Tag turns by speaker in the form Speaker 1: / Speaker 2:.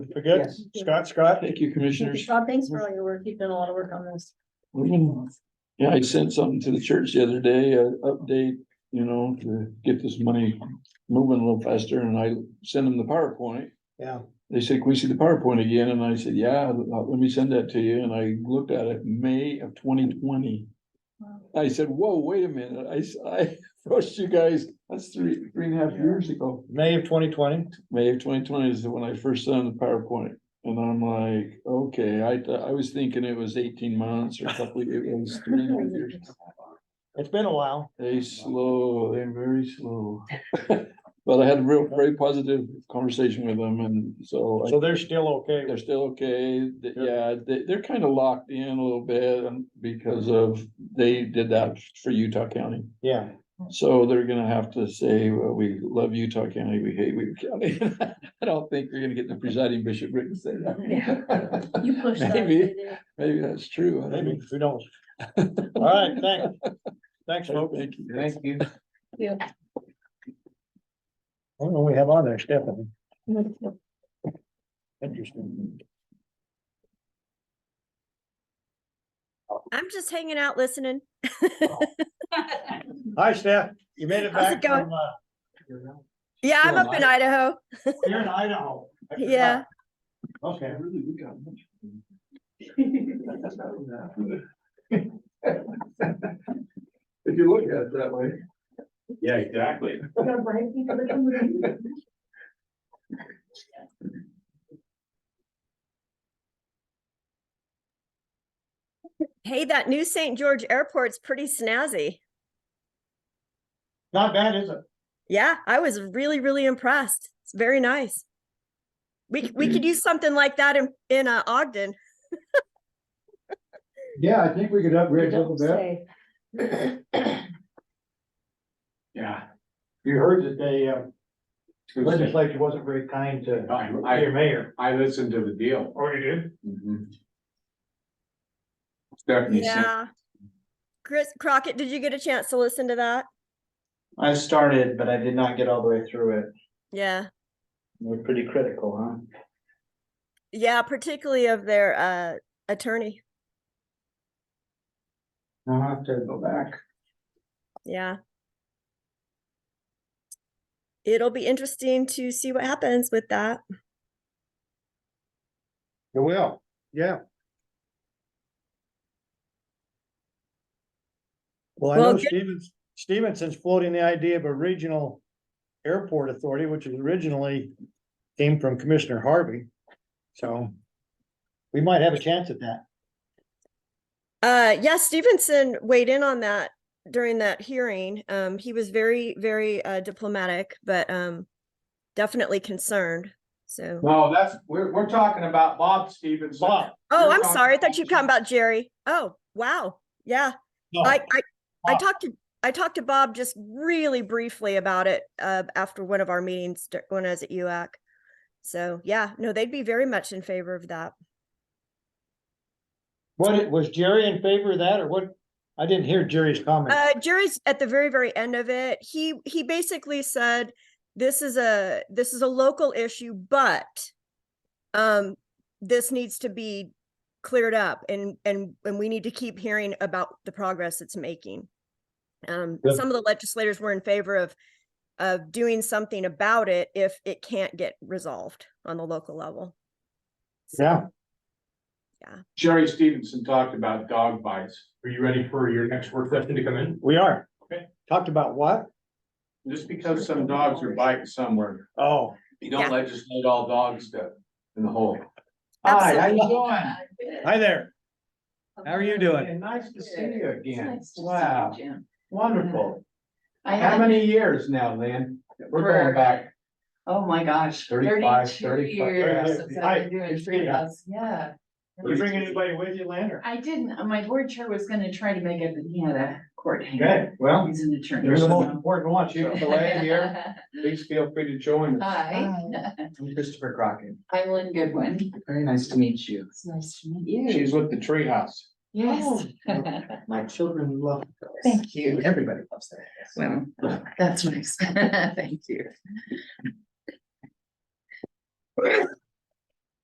Speaker 1: We're good?
Speaker 2: Yes.
Speaker 1: Scott, Scott?
Speaker 3: Thank you, commissioners.
Speaker 2: Scott, thanks for all your work. You've done a lot of work on this.
Speaker 3: Yeah, I sent something to the church the other day, an update, you know, to get this money moving a little faster, and I sent them the PowerPoint.
Speaker 1: Yeah.
Speaker 3: They said, can we see the PowerPoint again? And I said, yeah, uh, let me send that to you. And I looked at it, May of twenty twenty. I said, whoa, wait a minute. I, s- I rushed you guys. That's three, three and a half years ago.
Speaker 1: May of twenty twenty.
Speaker 3: May of twenty twenty is when I first sent the PowerPoint. And I'm like, okay, I, th- I was thinking it was eighteen months or a couple, it was three and a half years.
Speaker 1: It's been a while.
Speaker 3: They slow, they're very slow. But I had a real, very positive conversation with them and so. I-
Speaker 1: So they're still okay.
Speaker 3: they're still okay, th-
Speaker 1: Yeah.
Speaker 3: yeah, they, they're kind of locked in a little bit um, because of, they did that for Utah County.
Speaker 1: Yeah.
Speaker 3: So they're gonna have to say, well, we love Utah County, we hate Weaver County. I don't think you're gonna get the presiding bishop written to say that.
Speaker 2: You pushed that.
Speaker 3: Maybe.
Speaker 2: they did.
Speaker 3: Maybe that's true. I don't
Speaker 1: Maybe,
Speaker 3: know.
Speaker 1: who knows? All right, thanks. Thanks, folks.
Speaker 3: Thank you.
Speaker 4: you.
Speaker 2: Yeah.
Speaker 1: I don't know what we have on there, Stephanie. Interesting.
Speaker 5: I'm just hanging out listening.
Speaker 1: Hi, Steph. You made it back
Speaker 5: How's it going?
Speaker 1: from, uh,
Speaker 5: Yeah, I'm
Speaker 3: Well,
Speaker 5: up in Idaho.
Speaker 1: you're in Idaho. I forgot.
Speaker 5: Yeah.
Speaker 1: Okay.
Speaker 3: Really, we got much. If you look at it that way.
Speaker 4: Yeah, exactly.
Speaker 5: Hey, that new St. George airport's pretty snazzy.
Speaker 1: Not bad, is it?
Speaker 5: Yeah, I was really, really impressed. It's very nice. We, c- we could use something like that in, in uh, Ogden.
Speaker 1: Yeah, I think we could upgrade a little bit.
Speaker 4: Yeah.
Speaker 1: You heard that uh, the
Speaker 4: I,
Speaker 1: legislature wasn't very kind to your
Speaker 4: I-
Speaker 1: mayor.
Speaker 4: I listened to the deal.
Speaker 1: Oh, you did?
Speaker 4: Mhm. Stephanie sent,
Speaker 5: Yeah. Chris Crockett, did you get a chance to listen to that?
Speaker 6: I started, but I did not get all the way through it.
Speaker 5: Yeah.
Speaker 6: We're pretty critical, huh?
Speaker 5: Yeah, particularly of their uh, attorney.
Speaker 6: I'll have to go back.
Speaker 5: Yeah. It'll be interesting to see what happens with that.
Speaker 1: You will, yeah. Well, I
Speaker 5: Well,
Speaker 1: know
Speaker 5: good-
Speaker 1: Stevens, Stevenson's floating the idea of a regional airport authority, which is originally came from Commissioner Harvey. So we might have a chance at that.
Speaker 5: Uh, yeah, Stevenson weighed in on that during that hearing. Um, he was very, very uh, diplomatic, but um, definitely concerned. So,
Speaker 4: no, that's, we're, we're talking about Bob Stevens.
Speaker 1: Bob.
Speaker 5: oh,
Speaker 4: we're
Speaker 5: I'm
Speaker 4: talking
Speaker 5: sorry. I
Speaker 4: about
Speaker 5: thought you were talking about Jerry. Oh, wow. Yeah,
Speaker 1: No,
Speaker 5: I, I, I
Speaker 1: Bob.
Speaker 5: talked to, I talked to Bob just really briefly about it uh, after one of our meetings dur- when I was at UAC. So, yeah, no, they'd be very much in favor of that.
Speaker 1: What, was Jerry in favor of that or what? I didn't hear Jerry's comment.
Speaker 5: Uh, Jerry's at the very, very end of it. He, he basically said, this is a, this is a local issue, but um, this needs to be cleared up and, and, and we need to keep hearing about the progress it's making. Um,
Speaker 1: Good.
Speaker 5: some of the legislators were in favor of, of doing something about it if it can't get resolved on the local level.
Speaker 1: Yeah,
Speaker 4: Jerry Stevenson talked about dog bites. Are you ready for your next work session to come in?
Speaker 1: we are.
Speaker 4: Okay.
Speaker 1: Talked about what?
Speaker 4: Just because some dogs are biting somewhere,
Speaker 1: Oh,
Speaker 4: you
Speaker 5: Yeah.
Speaker 4: don't legislate all dogs to, in the hole.
Speaker 6: Hi, how you
Speaker 5: Absolutely.
Speaker 6: doing?
Speaker 1: hi there. How are you doing?
Speaker 6: Hey, Nice to see you again.
Speaker 7: It's nice to see you,
Speaker 6: Wow,
Speaker 7: Jim.
Speaker 6: wonderful.
Speaker 7: I
Speaker 6: How
Speaker 7: had,
Speaker 6: many years now, Lynn? We're going
Speaker 7: For-
Speaker 6: back.
Speaker 7: oh my gosh,
Speaker 6: 35,
Speaker 7: thirty-two
Speaker 6: 35.
Speaker 7: years since
Speaker 1: Hi,
Speaker 7: I've been doing
Speaker 1: Christina.
Speaker 7: treehouse, yeah.
Speaker 1: You bring anybody with you, Lynn? or-
Speaker 7: I didn't, uh, my board chair was gonna try to make it, but he had a court hanger.
Speaker 1: Okay, well,
Speaker 7: He's an attorney.
Speaker 1: you're the most
Speaker 7: so-
Speaker 1: important one,
Speaker 6: You
Speaker 1: so.
Speaker 6: can delay here. Please feel free to join us.
Speaker 7: Hi,
Speaker 6: I'm Christopher Crockett.
Speaker 7: I'm Lynn Goodwin.
Speaker 6: Very nice to meet you.
Speaker 7: It's nice to meet you. Oh.
Speaker 4: She's with the treehouse.
Speaker 7: Yes.
Speaker 6: Oh, My children love. this.
Speaker 7: Thank you.
Speaker 6: Everybody loves that.
Speaker 7: Well, that's nice. Thank you.